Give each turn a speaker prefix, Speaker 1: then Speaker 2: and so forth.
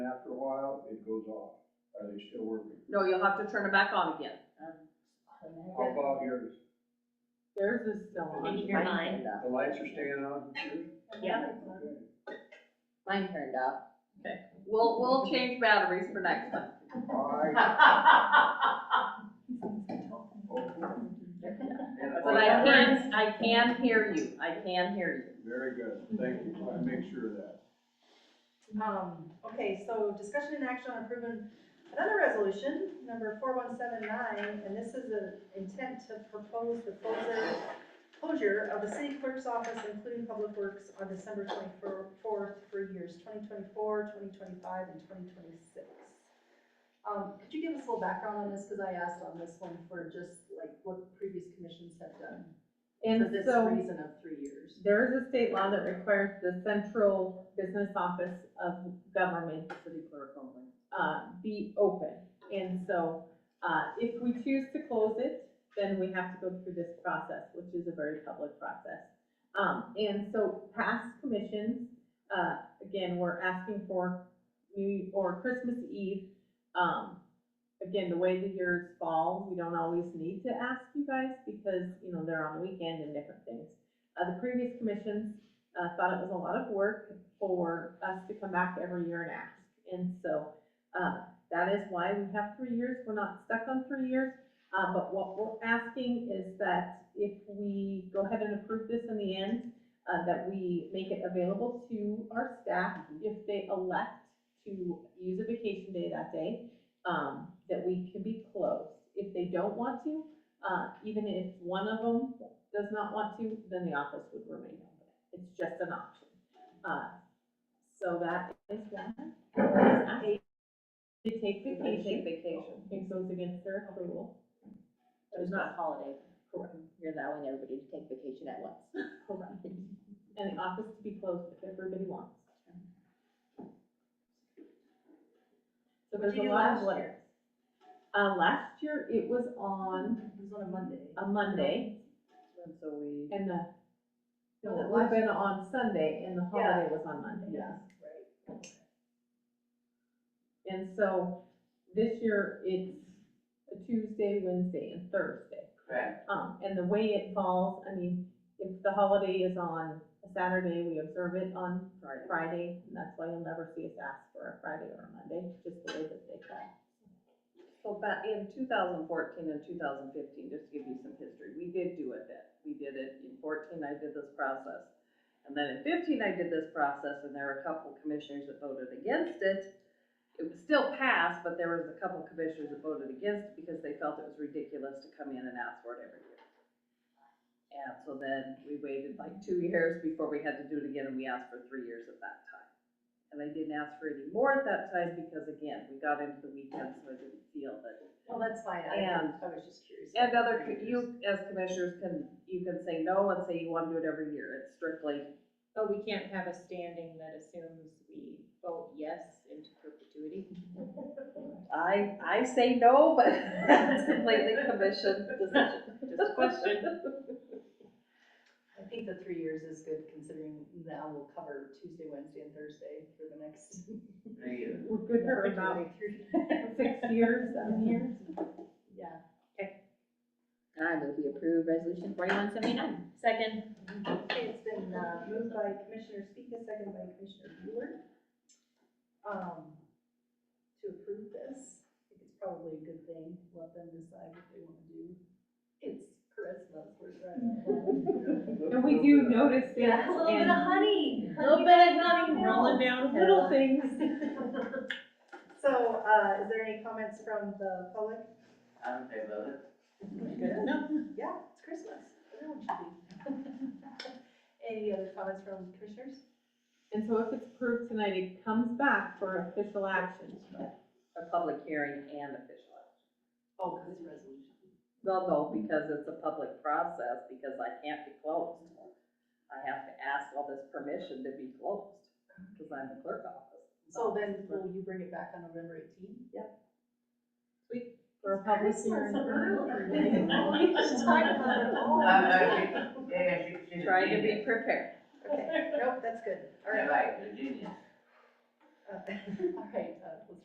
Speaker 1: after a while, it goes off. Are they still working?
Speaker 2: No, you'll have to turn it back on again.
Speaker 1: How about yours?
Speaker 2: Theirs is still on.
Speaker 3: Mine turned
Speaker 1: The
Speaker 3: off.
Speaker 1: lights are staying on? Yours?
Speaker 3: Yeah,
Speaker 1: Okay.
Speaker 3: mine turned off.
Speaker 2: We'll, we'll change batteries for next time.
Speaker 1: I, oh,
Speaker 2: But I can, I can hear you, I can hear
Speaker 1: very good. Thank you. I make sure of that.
Speaker 4: Um, okay, so discussion and action on approving another resolution, number four one seven nine, and this is an intent to propose the closure, closure of the city clerk's office, including public works, on December twenty-fourth for years 2024, 2025, and twenty twenty-six. Um, could you give us a little background on this, because I asked on this one for just like what previous commissions have done
Speaker 5: And
Speaker 4: for this
Speaker 5: so-
Speaker 4: reason of three years.
Speaker 5: There is a state law that requires the central business office of government, city clerk only, uh, be open. And so, uh, if we choose to close it, then we have to go through this process, which is a very public process. Um, and so past commissions, uh, again, we're asking for New, or Christmas Eve. Um, again, the way the years fall, we don't always need to ask you guys because, you know, they're on the weekend and different things. Uh, the previous commissions, uh, thought it was a lot of work for us to come back every year and ask. And so, uh, that is why we have three years, we're not stuck on three years. Uh, but what we're asking is that if we go ahead and approve this in the end, uh, that we make it available to our staff
Speaker 3: Mm-hmm.
Speaker 5: if they elect to use a vacation day that day, um, that we can be closed. If they don't want to, uh, even if one of them does not want to, then the office would remain open. It's just an option. Uh, so that is why we're asking to take
Speaker 2: you. Take
Speaker 5: vacation.
Speaker 2: vacation.
Speaker 5: It goes against their approval.
Speaker 3: It was not holiday.
Speaker 5: Correct.
Speaker 3: You're allowing everybody to take vacation at once.
Speaker 5: Correct. And the office to be closed if everybody wants. So
Speaker 4: What'd
Speaker 5: there's
Speaker 4: you
Speaker 5: a
Speaker 4: do
Speaker 5: lot
Speaker 4: last
Speaker 5: of
Speaker 4: year?
Speaker 5: layers. Uh, last year, it was on
Speaker 4: It was on a Monday.
Speaker 5: a Monday
Speaker 2: And so we.
Speaker 5: and the,
Speaker 4: Was it
Speaker 5: no, it
Speaker 4: last
Speaker 5: would've been on Sunday and the
Speaker 4: Yeah.
Speaker 5: holiday was on Monday.
Speaker 4: Yeah.
Speaker 5: And so this year, it's a Tuesday, Wednesday, and Thursday.
Speaker 4: Correct.
Speaker 5: Um, and the way it falls, I mean, if the holiday is on a Saturday, we observe it on Friday, and that's why you'll never see us ask for a Friday or a Monday, just the way that they fall.
Speaker 2: So back in two thousand fourteen and two thousand fifteen, just to give you some history, we did do it then. We did it in fourteen, I did this process. And then in fifteen, I did this process, and there were a couple commissioners that voted against it. It was still passed, but there was a couple commissioners that voted against it because they felt it was ridiculous to come in and ask for it every year. And so then we waited like two years before we had to do it again, and we asked for three years at that time. And I didn't ask for any more at that time because again, we got into the weekend, so I didn't feel that.
Speaker 4: Well, that's fine, I,
Speaker 2: And-
Speaker 4: I was just curious.
Speaker 2: And other, co- you as commissioners can, you can say no and say you want to do it every year. It's strictly,
Speaker 3: But oh, we can't have a standing that assumes we vote yes into perpetuity.
Speaker 2: I, I say no, but it's completely commission decision.
Speaker 4: Mm-hmm.
Speaker 3: Just a question.
Speaker 4: I think the three years is good considering now we'll cover Tuesday, Wednesday and Thursday for the next.
Speaker 5: We're good for about six years, seven years.
Speaker 4: Yeah.
Speaker 3: I move we approve resolution forty-one seventy-nine. Second.
Speaker 4: Okay, it's been, uh, moved by Commissioner Speaker, second by Commissioner Bueller. Um, to approve this, I think it's probably a good thing, let them decide what they wanna do. It's Christmas, we're trying.
Speaker 5: And we do notice it and
Speaker 4: honey.
Speaker 3: Little bit of nothing rolling down
Speaker 5: little
Speaker 3: hill.
Speaker 5: things.
Speaker 4: So, uh, is there any comments from the public?
Speaker 6: I don't think about it.
Speaker 4: Yeah, it's Christmas. Everyone should be. Any other comments from commissioners?
Speaker 5: And so if it's approved tonight, it comes back for official action.
Speaker 2: A public hearing and official action.
Speaker 4: Oh, because it's resolution.
Speaker 2: Well, no, because it's a public process, because I can't be closed. I have to ask all this permission to be closed, because I'm the clerk office.
Speaker 4: So then will you bring it back on November eighteenth?
Speaker 5: For a public hearing.
Speaker 4: We should talk about it all.
Speaker 6: Um, no, she, yeah, yeah, she, she's a
Speaker 2: Trying to be
Speaker 6: genius.
Speaker 2: prepared.
Speaker 4: Okay, nope, that's good. All
Speaker 6: Yeah,
Speaker 4: right.
Speaker 6: right, she's a genius.
Speaker 4: Uh, All right,